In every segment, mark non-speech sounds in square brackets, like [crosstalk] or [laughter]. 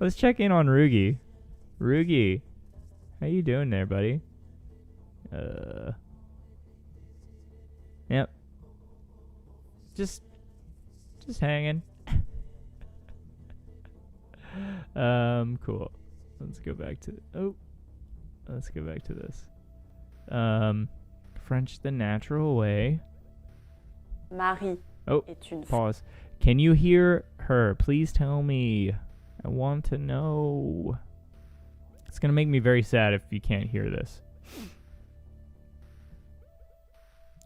Let's check in on Rugi. Rugi, how you doing there, buddy? Uh. Yep. Just, just hanging. [laughs] um. Cool. Let's go back to. Oh. Let's go back to this. Um, French the natural way. Marie Oh, est une femme. Pause. Can you hear her? Please tell me. I want to know. It's going to make me very sad if you can't hear this.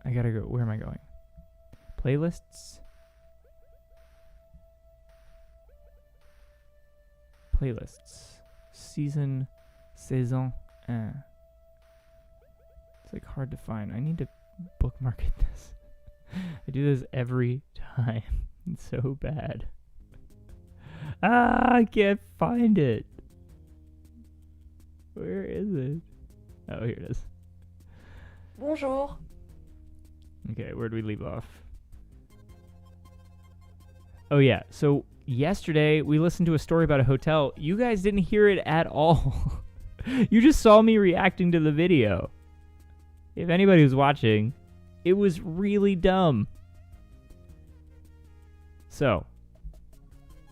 I got to go. Where am I going? Playlists? Playlists. Season. Saison 1. It's like hard to find. I need to bookmark [laughs] it this. I do this every time. [laughs] It's so bad. Ah, I can't find it. Where is it? Oh, here it is. Bonjour. Okay, where do we leave off? Oh, yeah. So, yesterday we listened to a story about a hotel. You guys didn't hear it at all. [laughs] you just saw me reacting to the video. If anybody was watching, it was really dumb. So,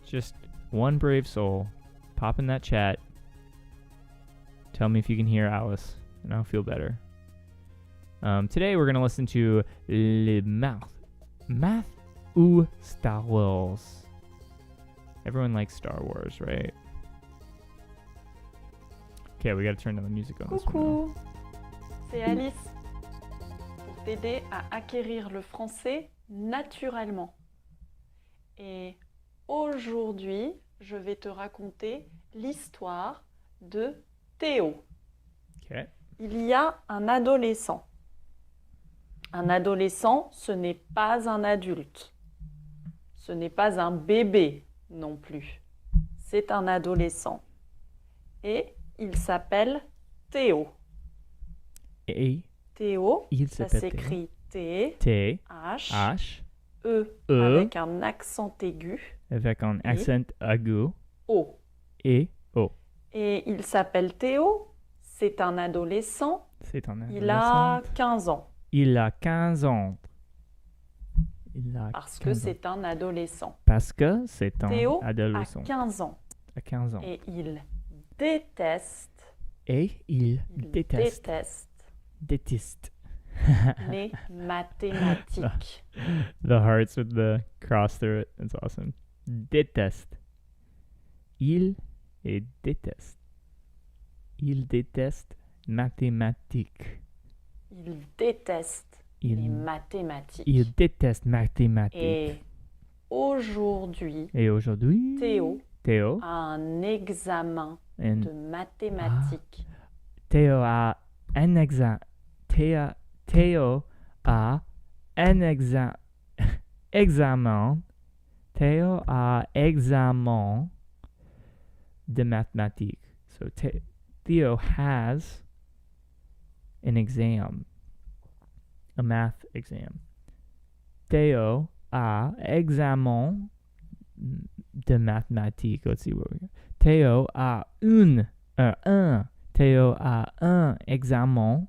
just one brave soul, pop in that chat. Tell me if you can hear Alice, and I'll feel better. Um, today we're gonna listen to Le Math, Math ou Star Wars. Everyone likes Star Wars, right? Okay, we gotta turn down the music on this one. now. Coucou. C'est Alice. Pour t'aider à acquérir le français naturellement. Et aujourd'hui, je vais te raconter l'histoire de Théo. Okay. Il y a un adolescent. Un adolescent, ce n'est pas un adulte. Ce n'est pas un bébé non plus. C'est un adolescent. Et il s'appelle Théo. Et Théo, il ça s'appelle s'écrit T T H H E E avec un accent aigu avec un accent aigu O. et O. Et il s'appelle Théo. C'est un adolescent. C'est un Il a adolescent. 15 ans Il a 15 ans. Il a parce que 15 ans. c'est un adolescent. Parce que c'est un Théo à adolescent 15 ans. à 15 ans. Et il déteste, Et il il déteste, déteste [laughs] déteste. les mathématiques. The hearts with the cross through it. That's awesome. Déteste. Il et déteste. Il déteste mathématiques. Il déteste les Il, mathématiques. il déteste mathématiques. Et aujourd'hui, Et, aujourd'hui, Théo Théo, a un examen and de mathématiques. Théo a un examen. Théo, Théo a un [laughs] exa- examen. Théo a examen de mathématiques. So Thé- Theo has an exam, a math exam. Theo a examen de mathématiques. Let's see what we got. Theo a une, euh, un Théo a un examen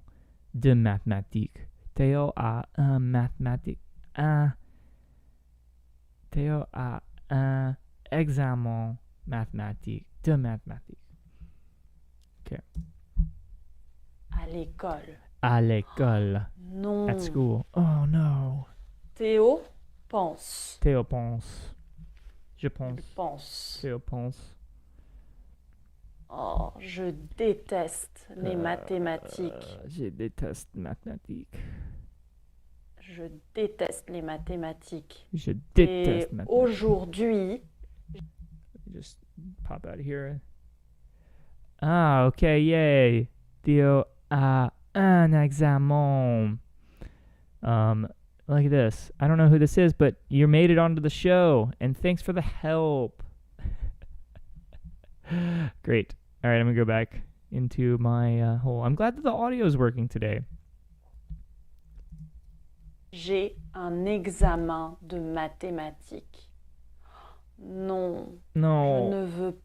de mathématiques. Théo a un mathématique. Un. Théo a un examen mathématique de mathématiques À l'école. à l'école. Non. At school. Oh no. Théo pense. Théo pense. Je Il pense. pense. Théo pense. Oh, je déteste les Euh, mathématiques. Euh, je déteste mathématiques. Je déteste les mathématiques. Je Et déteste mathématiques. aujourd'hui, just pop out of here. Ah, okay, yay. Theo a un examen. Um, look at this. I don't know who this is, but you made it onto the show, and thanks for the help. [laughs] Great. All right, I'm gonna go back into my uh, hole. I'm glad that the audio is working today. j'ai un examen de mathématiques. Non, je No. Oh, ne veux